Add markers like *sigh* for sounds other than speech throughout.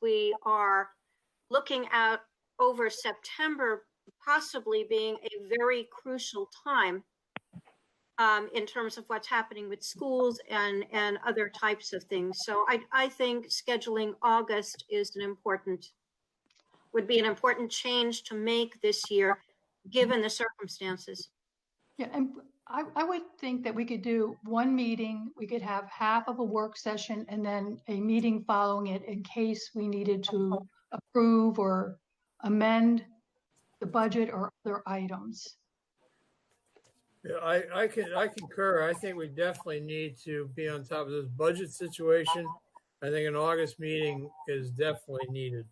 we are looking out over September possibly being a very crucial time um, in terms of what's happening with schools and, and other types of things. So I, I think scheduling August is an important, would be an important change to make this year, given the circumstances. Yeah, and I, I would think that we could do one meeting, we could have half of a work session and then a meeting following it in case we needed to approve or amend the budget or other items. Yeah, I, I can, I concur. I think we definitely need to be on top of this budget situation. I think an August meeting is definitely needed.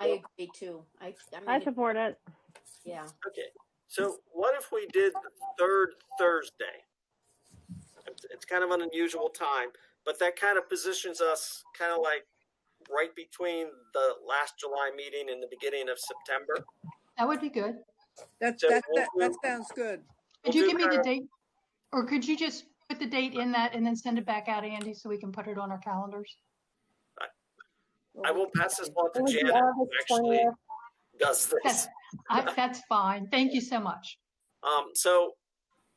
I agree too. I, I I mean, support it. yeah, Okay, so what if we did the third Thursday? It's, it's kind of an unusual time, but that kind of positions us kind of like right between the last July meeting and the beginning of September. That would be good. That's, So that, we'll that, that do- sounds good. Could We'll you give do me the that. date? Or could you just put the date in that and then send it back out, Andy, so we can put it on our calendars? I will pass this on to It was Janet, who August actually does this. *laughs* Yes, I, that's fine. Thank you so much. Um, so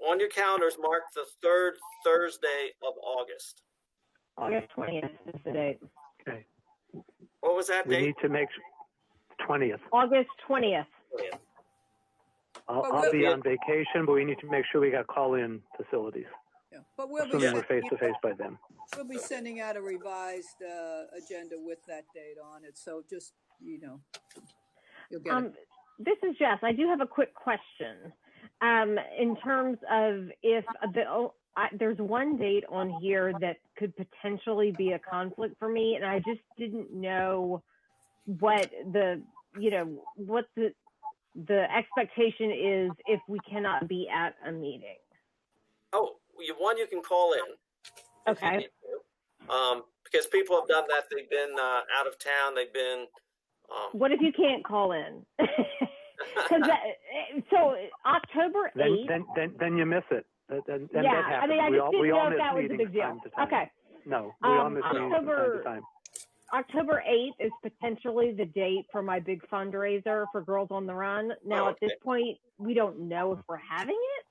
on your calendars, mark the third Thursday of August. August twentieth is the date. What was that We date? need to make twentieth. August twentieth. I'll, But I'll we'll- be on vacation, but we need to make sure we got call-in facilities. Yeah. But we'll be, Assuming we're sending out- face-to-face by then. we'll be sending out a revised, uh, agenda with that date on it, so just, you know. You'll get it. Um, this is Jess. I do have a quick question. Um, in terms of if the, oh, I, there's one date on here that could potentially be a conflict for me, and I just didn't know what the, you know, what the, the expectation is if we cannot be at a meeting. Oh, you- one you can call in. if you Okay. need to. Um, because people have done that. They've been uh, out of town. They've been. Um, What if you can't call in? *laughs* 'Cause that- so October Then, 8th. then, then, then you miss it. Then, then then yeah, that I mean, happens. I We just all, didn't we know all if miss that was a meetings big deal. from time to time. Okay. No, we all Um, miss meetings from time October- to time. October 8th is potentially the date for my big fundraiser for Girls on the Run. Now, Oh, at this okay. point, we don't know if we're having it,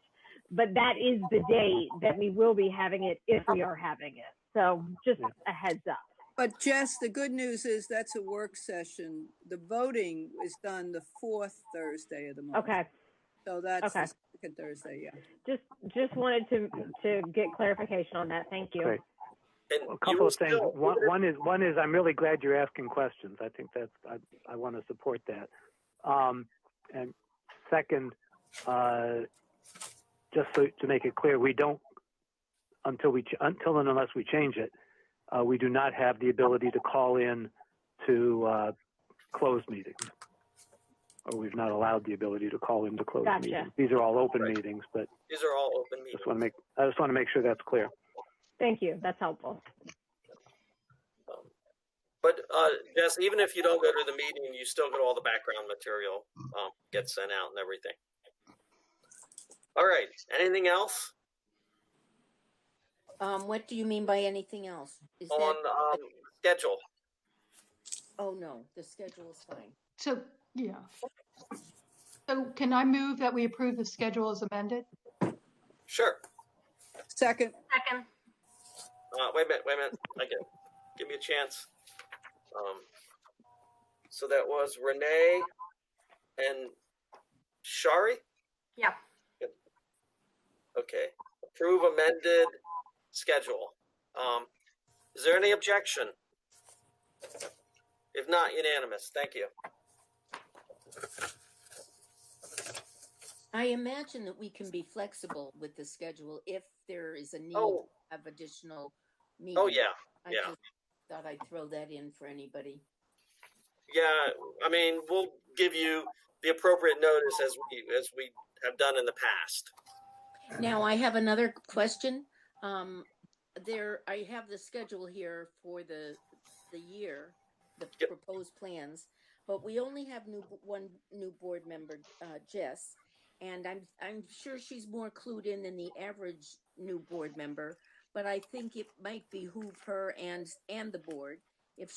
but that is the date that we will be having it if we are having it. So, just Yeah. a heads up. But Jess, the good news is that's a work session. The voting is done the fourth Thursday of the month. Okay. So that's Okay. the second Thursday, yeah. Just just wanted to to get clarification on that. Thank you. Great. *laughs* and A you couple will of things. still- One, one is, one is, I'm really glad you're asking questions. I think that's, I, I want to support that. Um, and second, uh, just so, to make it clear, we don't, until we, ch- until and unless we change it, uh, we do not have the ability to call in to, uh, closed meetings. Or we've not allowed the ability to call into closed Gotcha. meetings. These are all open Right. meetings, but These are all open meetings. just want to make, I just want to make sure that's clear. Thank you. That's helpful. Um, But uh, Jess, even if you don't go to the meeting, you still get all the background material um, gets sent out and everything. All right. Anything else um, what do you mean by anything else? Is on that, um, schedule? oh no, the schedule is fine. So, yeah. So can I move that we approve the schedule as amended? Sure. Second, Second, Uh, wait a minute, wait a minute. I get, give me a chance. Um, so that was Renee and Shari. yeah. Okay. Approve amended schedule. Um, is there any objection? If not, unanimous. Thank you. I imagine that we can be flexible with the schedule if there is a need Oh, of additional meetings. oh yeah, I yeah. just thought I'd throw that in for anybody. yeah. I mean, we'll give you the appropriate notice as we as we have done in the past. Now, I have another question. Um, there, I have the schedule here for the, the year, the Yep. proposed plans, but we only have new, one new board member, uh, Jess. And I'm, I'm sure she's more clued in than the average new board member, but I think it might behoove her and, and the board